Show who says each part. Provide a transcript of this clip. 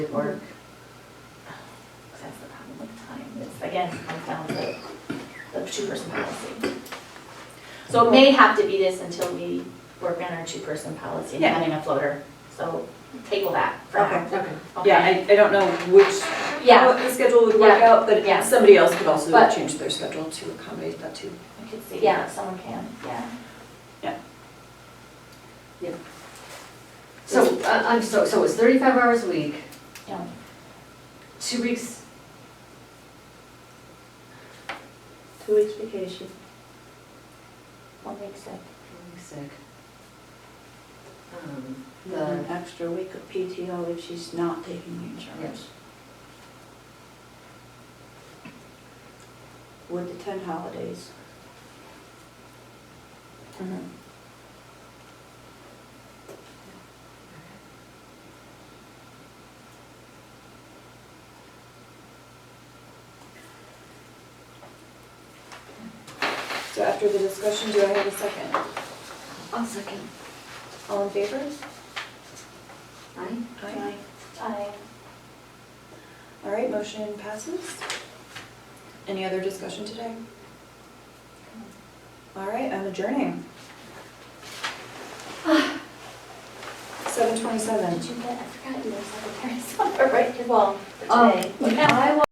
Speaker 1: Good work. 'Cause That's the problem with time, it's, again, comes down to the two-person policy. So it may have to be this until we work on our two-person policy and
Speaker 2: Yeah.
Speaker 1: having a floater, so table that for now.
Speaker 2: Okay,
Speaker 1: Okay.
Speaker 2: yeah, I, I don't know which,
Speaker 1: Yeah,
Speaker 2: what the schedule would work
Speaker 1: Yeah.
Speaker 2: out, but
Speaker 1: Yeah.
Speaker 2: somebody else could also
Speaker 1: But-
Speaker 2: change their schedule to accommodate that too.
Speaker 1: I could see, yeah, someone can, yeah.
Speaker 3: So, I- I'm, so, so it's thirty-five hours a week,
Speaker 1: Yeah.
Speaker 3: two weeks,
Speaker 4: Two weeks vacation.
Speaker 1: One week sick.
Speaker 3: one week sick. Um, The,
Speaker 4: An extra week of PTO if she's not taking insurance. With the ten holidays.
Speaker 2: So after the discussion, do I have a second?
Speaker 3: I'll second,
Speaker 2: All in favor?
Speaker 3: aye?
Speaker 2: Aye.
Speaker 1: I,
Speaker 2: All right, motion passes. Any other discussion today? All right, I'm adjourning. Seven twenty-seven.
Speaker 1: did you get, I forgot you were secretary, so, right, well, for
Speaker 3: Um,
Speaker 1: today.
Speaker 3: I